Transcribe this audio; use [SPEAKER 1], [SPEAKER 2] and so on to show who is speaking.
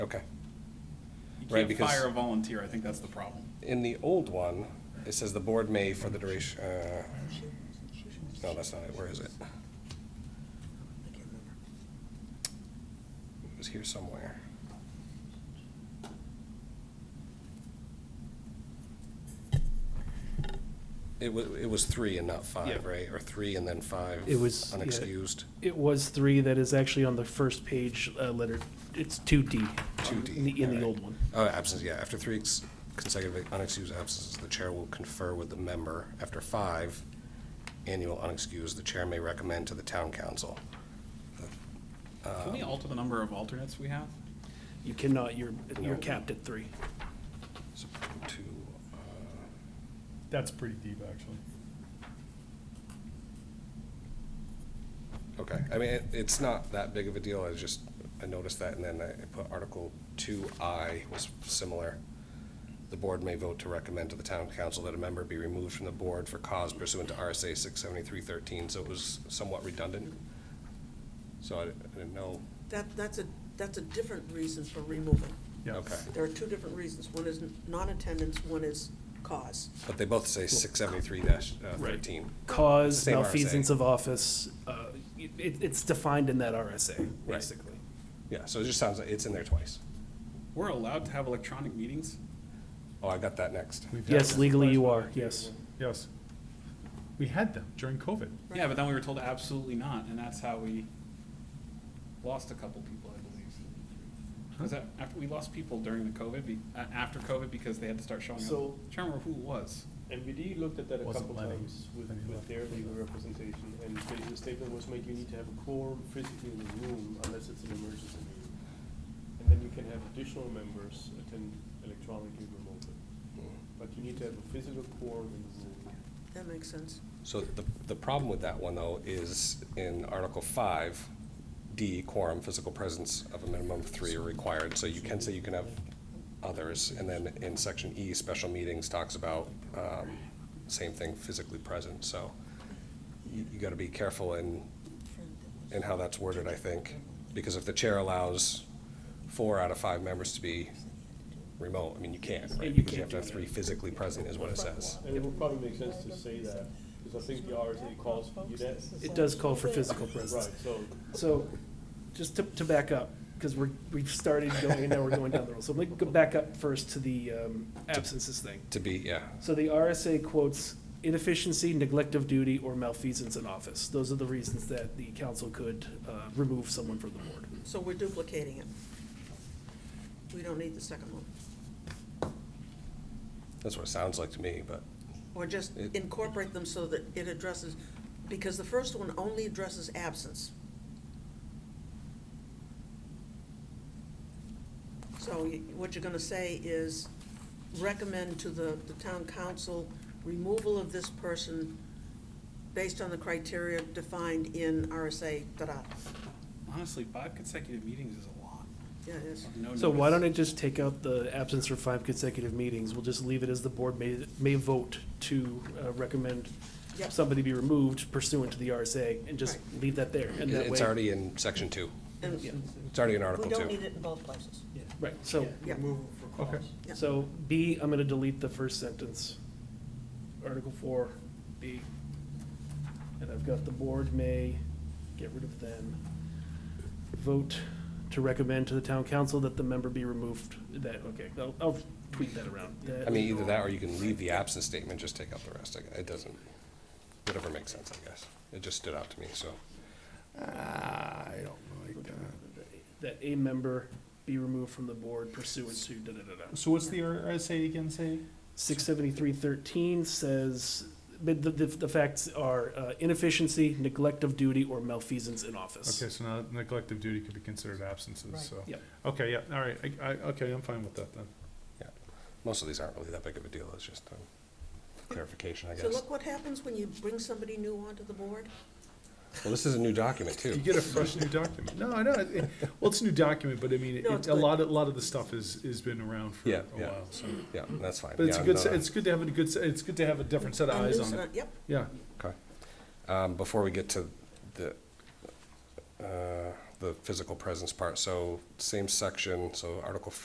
[SPEAKER 1] Okay.
[SPEAKER 2] You
[SPEAKER 1] Right,
[SPEAKER 2] can't
[SPEAKER 1] because-
[SPEAKER 2] fire a volunteer, I think that's the problem.
[SPEAKER 1] In the old one, it says the board may for the duration, uh, no, that's not it, where is it? It was here somewhere. It wa, it was three and not five,
[SPEAKER 2] Yeah.
[SPEAKER 1] right? Or three and then five?
[SPEAKER 3] It was- yeah.
[SPEAKER 1] Unexcused,
[SPEAKER 3] It was three that is actually on the first page, uh, letter, it's two D.
[SPEAKER 1] 2D,
[SPEAKER 3] In the, in
[SPEAKER 1] alright.
[SPEAKER 3] the old one.
[SPEAKER 1] oh, absence, yeah, after three ex- consecutive unexcused absences, the chair will confer with the member. After five annual unexcused, the chair may recommend to the town council.
[SPEAKER 2] Can we alter the number of alternates we have?
[SPEAKER 3] You cannot, you're,
[SPEAKER 1] No.
[SPEAKER 3] you're capped at three.
[SPEAKER 1] So, to uh,
[SPEAKER 4] That's pretty deep, actually.
[SPEAKER 1] Okay, I mean, it- it's not that big of a deal, I just, I noticed that, and then I put Article two I was similar. The board may vote to recommend to the town council that a member be removed from the board for cause pursuant to RSA six seventy-three thirteen, so it was somewhat redundant. So I I didn't know,
[SPEAKER 5] That, that's a, that's a different reason for removal.
[SPEAKER 4] Yeah.
[SPEAKER 1] okay,
[SPEAKER 5] There are two different reasons. One is non-attendance, one is cause.
[SPEAKER 1] but they both say six seventy-three uh, thirteen.
[SPEAKER 3] Cause
[SPEAKER 1] Same RSA.
[SPEAKER 3] malfeasance of office, uh, it, it's defined in that RSA,
[SPEAKER 1] Right.
[SPEAKER 3] basically.
[SPEAKER 1] Yeah, so it just sounds, like it's in there twice.
[SPEAKER 2] We're allowed to have electronic meetings?
[SPEAKER 1] Oh, I got that next.
[SPEAKER 4] We've had
[SPEAKER 3] Yes,
[SPEAKER 4] them.
[SPEAKER 3] legally you are, yes.
[SPEAKER 4] Yes. We had them during COVID.
[SPEAKER 2] Yeah, but then we were told absolutely not, and that's how we lost a couple people, I believe. Was that, after, we lost people during the COVID, be, uh, after COVID because they had to start showing up.
[SPEAKER 6] So-
[SPEAKER 2] I can't remember who it was.
[SPEAKER 6] MBD looked at that a
[SPEAKER 4] Wasn't
[SPEAKER 6] couple
[SPEAKER 4] Lenny.
[SPEAKER 6] times with,
[SPEAKER 4] Lenny
[SPEAKER 6] with
[SPEAKER 4] left.
[SPEAKER 6] their legal representation, and the- the statement was made, you need to have a quorum physically in the room unless it's an emergency meeting. And then you can have additional members attend electronically remotely, but you need to have a physical quorum in the room.
[SPEAKER 5] That makes sense.
[SPEAKER 1] So the, the problem with that one, though, is in Article five, D, quorum, physical presence of a minimum of three are required, so you can say you can have others, and then in section E, special meetings talks about, um, same thing, physically present, so you, you gotta be careful in, in how that's worded, I think, because if the chair allows four out of five members to be remote, I mean, you can't, right? Because you have to have three physically present is what it says.
[SPEAKER 6] And it would probably make sense to say that, because I think the RSA calls for you that,
[SPEAKER 3] It does call for physical
[SPEAKER 6] right,
[SPEAKER 3] presence.
[SPEAKER 6] so
[SPEAKER 3] So, just to, to back up, because we're, we've started going, and now we're going down the road. So let me go back up first to the, um, absences thing.
[SPEAKER 1] To be, yeah,
[SPEAKER 3] So the RSA quotes inefficiency, neglect of duty, or malfeasance in office. Those are the reasons that the council could uh, remove someone from the board.
[SPEAKER 5] So we're duplicating it. We don't need the second one.
[SPEAKER 1] that's what it sounds like to me, but.
[SPEAKER 5] Or just
[SPEAKER 1] It-
[SPEAKER 5] incorporate them so that it addresses, because the first one only addresses absence. So y- what you're gonna say is recommend to the, the town council removal of this person based on the criteria defined in RSA, da-da.
[SPEAKER 2] Honestly, five consecutive meetings is a lot.
[SPEAKER 5] Yeah, it is.
[SPEAKER 2] of no
[SPEAKER 3] So why don't
[SPEAKER 2] notice.
[SPEAKER 3] I just take out the absence for five consecutive meetings? We'll just leave it as the board may, may vote to uh, recommend
[SPEAKER 5] Yep.
[SPEAKER 3] somebody be removed pursuant to the RSA, and just leave that there. And that
[SPEAKER 1] It's
[SPEAKER 3] way-
[SPEAKER 1] already in section two.
[SPEAKER 5] And
[SPEAKER 3] Yeah.
[SPEAKER 1] It's already in
[SPEAKER 5] we
[SPEAKER 1] Article
[SPEAKER 5] don't
[SPEAKER 1] two.
[SPEAKER 5] need it in both places.
[SPEAKER 3] Right, so,
[SPEAKER 5] Yeah.
[SPEAKER 4] Okay.
[SPEAKER 5] Yeah.
[SPEAKER 3] so B, I'm gonna delete the first sentence. Article four, B. And I've got the board may, get rid of then. Vote to recommend to the town council that the member be removed, that, okay, I'll, I'll tweet that around. That-
[SPEAKER 1] I mean, either that or you can leave the absence statement, just take out the rest. I- It doesn't, whatever makes sense, I guess. It just stood out to me, so.
[SPEAKER 7] I don't like that.
[SPEAKER 3] That a member be removed from the board pursuant to da-da-da-da.
[SPEAKER 4] So what's the RSA again say?
[SPEAKER 3] Six seventy-three thirteen says, but the, the, the facts are uh, inefficiency, neglect of duty, or malfeasance in office.
[SPEAKER 4] Okay, so now neglect of duty could be considered absences,
[SPEAKER 5] Right.
[SPEAKER 4] so.
[SPEAKER 3] Yep.
[SPEAKER 4] Okay, yeah, all right, I, I, okay, I'm fine with that then.
[SPEAKER 1] Most of these aren't really that big of a deal, it's just um, clarification, I
[SPEAKER 5] So
[SPEAKER 1] guess.
[SPEAKER 5] look what happens when you bring somebody new onto the board.
[SPEAKER 1] Well, this is a new document,
[SPEAKER 4] You
[SPEAKER 1] too.
[SPEAKER 4] get a fresh new document. No, I know, it- well, it's a new document, but I mean,
[SPEAKER 5] No,
[SPEAKER 4] it,
[SPEAKER 5] it's
[SPEAKER 4] a
[SPEAKER 5] good.
[SPEAKER 4] lot, a lot of the stuff is, is been around for
[SPEAKER 1] Yeah,
[SPEAKER 4] a
[SPEAKER 1] yeah.
[SPEAKER 4] while, so.
[SPEAKER 1] Yeah, that's fine.
[SPEAKER 4] But it's a
[SPEAKER 1] Yeah,
[SPEAKER 4] good,
[SPEAKER 1] no,
[SPEAKER 4] se-
[SPEAKER 1] no.
[SPEAKER 4] it's good to have a good, se- it's good to have a different set of
[SPEAKER 5] A
[SPEAKER 4] eyes
[SPEAKER 5] new
[SPEAKER 4] on
[SPEAKER 5] set
[SPEAKER 4] it,
[SPEAKER 5] of- Yep,
[SPEAKER 4] yeah.
[SPEAKER 1] Um, Before we get to the, uh, the physical presence part. So same section, so Article